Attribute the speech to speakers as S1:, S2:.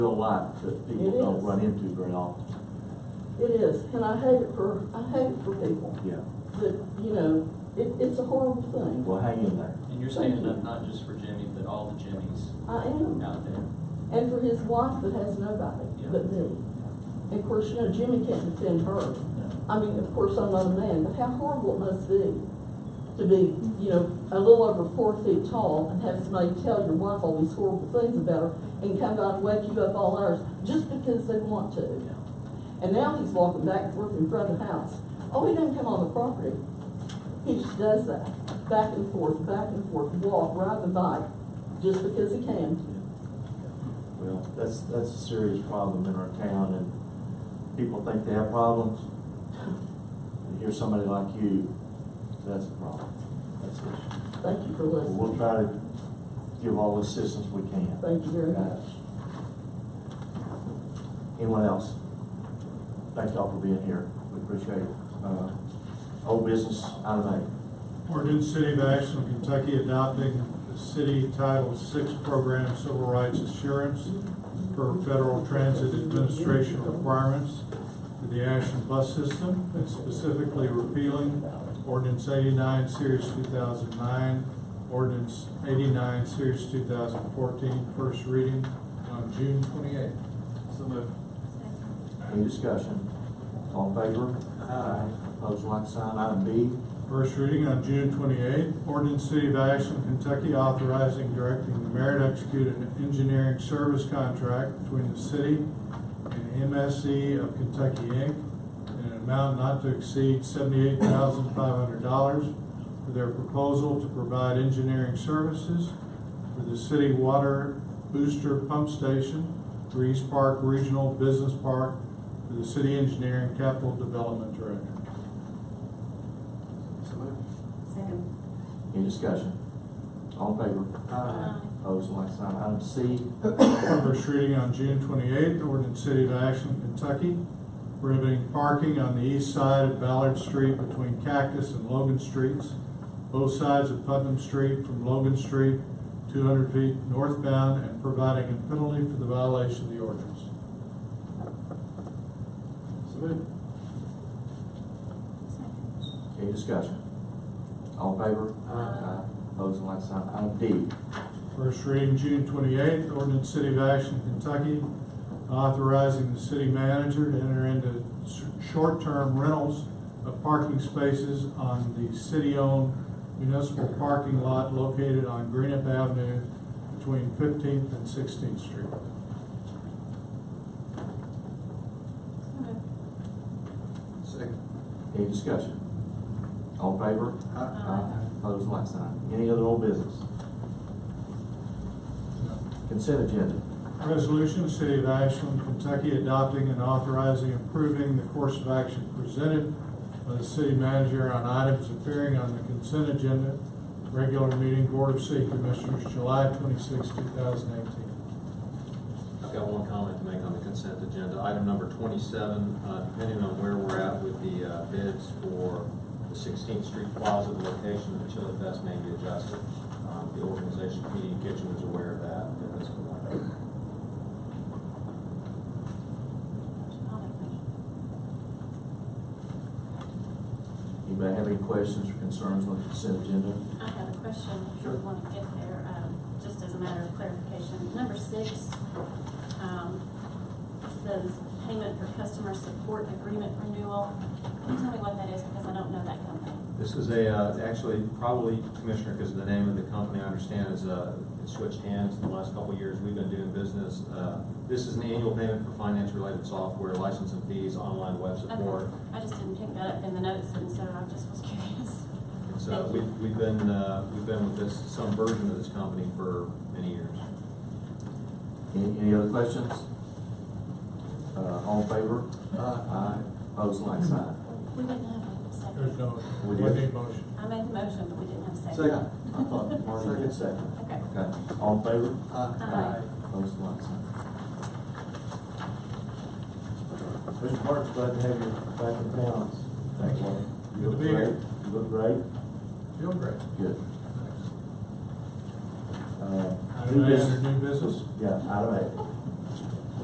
S1: real life that people
S2: It
S1: don't
S2: is.
S1: run into very often.
S2: It is, and I hate it for, I hate it for people,
S1: Yeah,
S2: that, you know, it, it's a horrible thing.
S1: well, hang in there.
S3: And you're saying that not just for Jimmy, but all the Jimmys
S2: I am,
S3: out there.
S2: and for his wife that has nobody but me. And of course, you know, Jimmy can't defend her. I mean, of course, I'm not a man, but how horrible it must be to be, you know, a little over four feet tall and have somebody tell your wife all these horrible things about her and come by and wake you up all hours just because they want to. And now he's walking back and forth in front of the house. Oh, he doesn't come on the property. He just does that, back and forth, back and forth, walk, ride the bike, just because he can.
S1: Well, that's, that's a serious problem in our town, and people think they have problems. And here's somebody like you, that's a problem. That's an issue.
S2: Thank you for
S1: Well, We'll
S2: listening.
S1: try to give all the assistance we can.
S2: Thank you very much.
S1: Anyone else? Thank y'all for being here, we appreciate it. Uh, Old business, item eight.
S4: Ordinance City of Ashland, Kentucky adopting the city Title VI program Civil Rights Assurance per Federal Transit Administration requirements for the Ashland bus system and specifically repealing ordinance eighty-nine, series two thousand nine, ordinance eighty-nine, series 2014, first reading on June twenty-eighth.
S3: So moved.
S1: Any discussion? All in favor? Aye. Pose like sign, item B.
S4: First reading on June twenty-eighth, ordinance City of Ashland, Kentucky authorizing and directing the mayor to execute an engineering service contract between the city and MSC of Kentucky Inc. in an amount not to exceed seventy-eight thousand five hundred dollars for their proposal to provide engineering services for the city water booster pump station for East Park Regional Business Park for the city engineering capital development director.
S3: So moved.
S5: Second.
S1: Any discussion? All in favor?
S5: Aye.
S1: Pose like sign, item C.
S4: First reading on June twenty-eighth, ordinance City of Ashland, Kentucky, prohibiting parking on the east side of Ballard Street between Cactus and Logan Streets, both sides of Putnam Street from Logan Street, two hundred feet northbound, and providing a penalty for the violation of the ordinance.
S3: So moved.
S5: Second.
S1: Any discussion? All in favor? Aye. Pose like sign, item D.
S4: First reading, June twenty-eighth, ordinance City of Ashland, Kentucky, authorizing the city manager to enter into s- short-term rentals of parking spaces on the city-owned municipal parking lot located on Greenup Avenue between Fifteenth and Sixteenth Street.
S5: So moved.
S3: Second.
S1: Any discussion? All in favor?
S5: Aye.
S1: Pose like sign. Any other old business? Consent agenda.
S4: Resolution, City of Ashland, Kentucky adopting and authorizing approving the course of action presented by the city manager on items appearing on the consent agenda, regular meeting, Board of City Commissioners, July 26, 2018.
S6: I've got one comment to make on the consent agenda. Item number twenty-seven, uh, depending on where we're at with the uh, bids for the Sixteenth Street Plaza, the location of the Chili Fest may be adjusted. Um, The organization, PD Kitchen, is aware of that at this point.
S5: I'll make a motion.
S1: Anybody have any questions or concerns on the consent agenda?
S5: I have a question, if you
S1: Sure.
S5: want to get there, um, just as a matter of clarification. Number six, um, says payment for customer support agreement renewal. Can you tell me what that is, because I don't know that company?
S6: This is a, uh, actually, probably Commissioner, because the name of the company, I understand, is, uh, it switched hands in the last couple of years. We've been doing business. Uh, This is an annual payment for finance-related software, license and fees, online web support.
S5: Okay, I just didn't pick that up in the notes, and so I just was curious.
S6: And so we've, we've been, uh, we've been with this, some version of this company for many years.
S1: Any, any other questions? Uh, all in favor? Aye. Pose like sign.
S5: We didn't have a second.
S4: There's no,
S1: We
S4: we
S1: did.
S4: need motion.
S5: I made the motion, but we didn't have a second.
S1: I thought Marty did second.
S5: Okay.
S1: Okay, all in favor?
S5: Aye.
S1: Pose like sign. Mr. Marks, glad to have you back in town. Thank you. You look
S4: Good to be here.
S1: great. You look great.
S4: Feel great.
S1: Good. Uh,
S4: Item
S1: New
S4: A under
S1: business.
S4: new business.
S1: Yeah, item eight.